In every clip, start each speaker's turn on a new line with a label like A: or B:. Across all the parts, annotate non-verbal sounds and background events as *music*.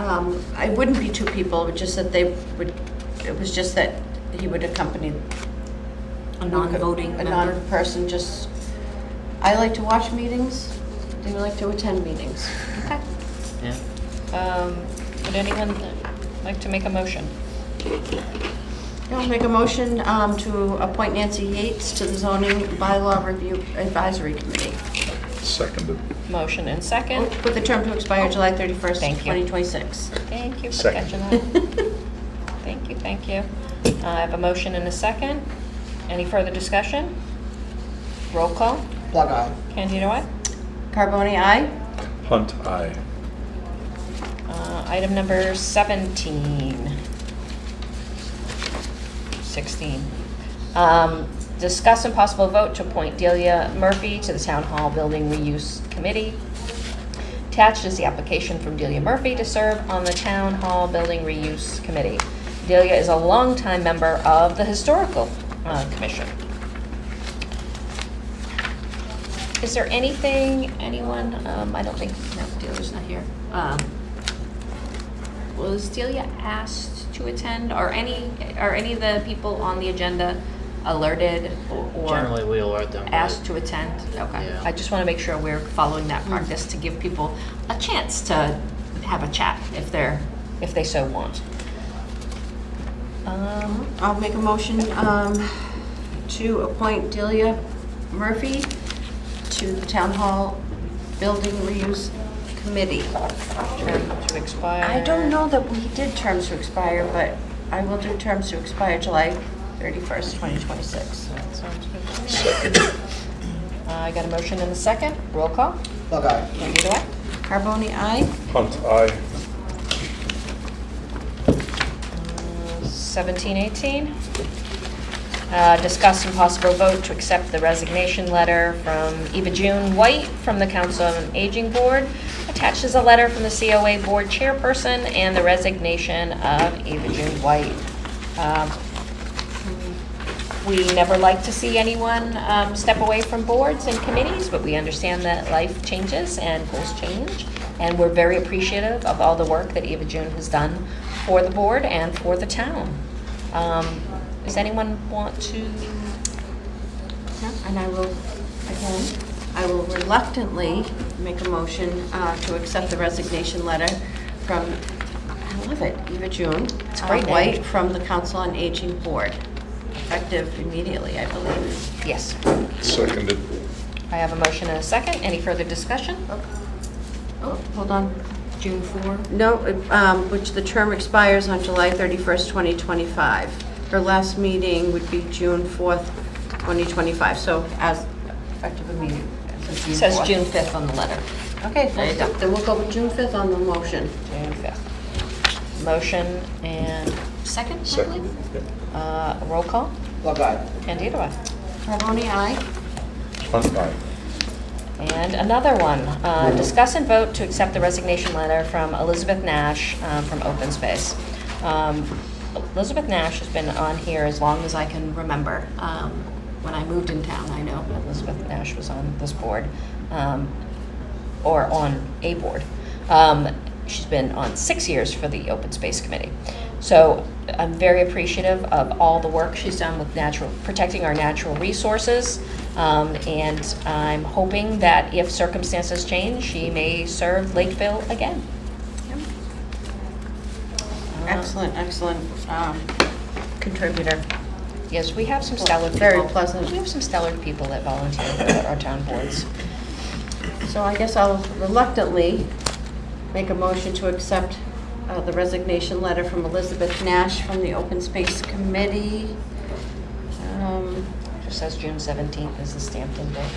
A: Um, I wouldn't be two people, but just that they would, it was just that he would accompany.
B: A non-voting
A: A
B: member?
A: non-person, just, I like to watch meetings, they like to attend meetings.
C: Okay.
D: Yeah.
C: Um, Would anyone like to make a motion?
A: I'll make a motion um, to appoint Nancy Yates to the zoning bylaw review advisory committee
E: Seconded.
C: Motion and second.
A: with the term to expire July 31st,
C: Thank you.
A: 2026.
C: Thank you for
E: Second.
C: catching that. Thank you, thank you. Uh, I have a motion and a second. Any further discussion? Roll call.
F: Plug eye.
C: Candida, aye.
A: Carbone, aye?
E: Hunt, aye.
C: Uh, Item number 17. 16. Um, Discuss and possible vote to appoint Delia Murphy to the Town Hall Building Reuse Committee. Attached is the application from Delia Murphy to serve on the Town Hall Building Reuse Committee. Delia is a longtime member of the Historical uh, Commission. Is there anything, anyone, um, I don't think, no, Delia's not here. Um, Was Delia asked to attend? Are any, are any of the people on the agenda alerted or? or-
D: Generally, we alert them. but-
C: asked to attend? Okay.
D: Yeah.
C: I just want to make sure we're following that
A: Hmm.
C: practice to give people a chance to have a chat if they're, if they so want. Um,
A: I'll make a motion um, to appoint Delia Murphy to the Town Hall Building Reuse Committee.
C: term To expire.
A: I don't know that we did terms to expire, but I will do terms to expire July 31st, 2026.
C: That sounds good *coughs* to me. I got a motion and a second. Roll call.
F: Plug eye.
C: Candida, aye?
A: Carbone, aye?
E: Hunt, aye.
C: 1718. Uh, Discuss and possible vote to accept the resignation letter from Eva June White from the Council on Aging Board. Attached is a letter from the COA Board Chairperson and the resignation of Eva June White. Um, We never like to see anyone um, step away from boards and committees, but we understand that life changes and goals change. And we're very appreciative of all the work that Eva June has done for the board and for the town. Um, Does anyone want to?
A: And I will, again, I will reluctantly make a motion uh, to accept the resignation letter from, I love it, Eva June.
C: It's a great
A: uh,
C: name.
A: White from the Council on Aging Board, effective immediately, I believe.
C: Yes.
E: Seconded.
C: I have a motion and a second. Any further discussion?
A: Oh, hold on.
C: June 4.
A: No, um, which the term expires on July 31st, 2025. Her last meeting would be June 4th, 2025, so as effective immediately.
C: It says June 5th on the letter.
A: Okay,
C: There you go.
A: then we'll go with June 5th on the motion.
C: June 5th. Motion and second, I
E: Seconded.
C: believe? Uh, Roll call.
F: Plug eye.
C: Candida, aye?
A: Carbone, aye?
E: Hunt, aye.
C: And another one, uh, discuss and vote to accept the resignation letter from Elizabeth Nash um, from Open Space. Um, Elizabeth Nash has been on here as long as I can remember. Um, When I moved in town, I know Elizabeth Nash was on this board, um, or on a board. Um, She's been on six years for the Open Space Committee. So I'm very appreciative of all the work she's done with natural, protecting our natural resources. Um, and I'm hoping that if circumstances change, she may serve Lakeville again. Uh,
A: Excellent, excellent um, contributor.
C: Yes, we have some stellar people.
A: Very pleasant.
C: We have some stellar people that volunteer for our town boards.
A: So I guess I'll reluctantly make a motion to accept uh, the resignation letter from Elizabeth Nash from the Open Space Committee. Um,
C: Just says June 17th is the Stampton Day.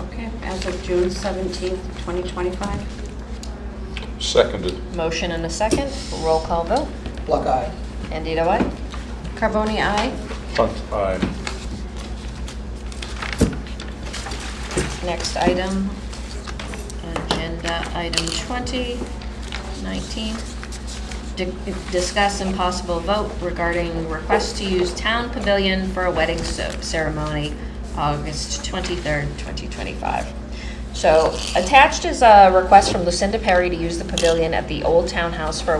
A: Okay, as of June 17th, 2025.
E: Seconded.
C: Motion and a second, roll call vote.
F: Plug eye.
C: Candida, aye?
A: Carbone, aye?
E: Hunt, aye.
C: Next item, agenda item 20, 19. Di- Discuss and possible vote regarding request to use town pavilion for a wedding ce- ceremony, August 23rd, 2025. So attached is a request from Lucinda Perry to use the pavilion at the Old Town House for a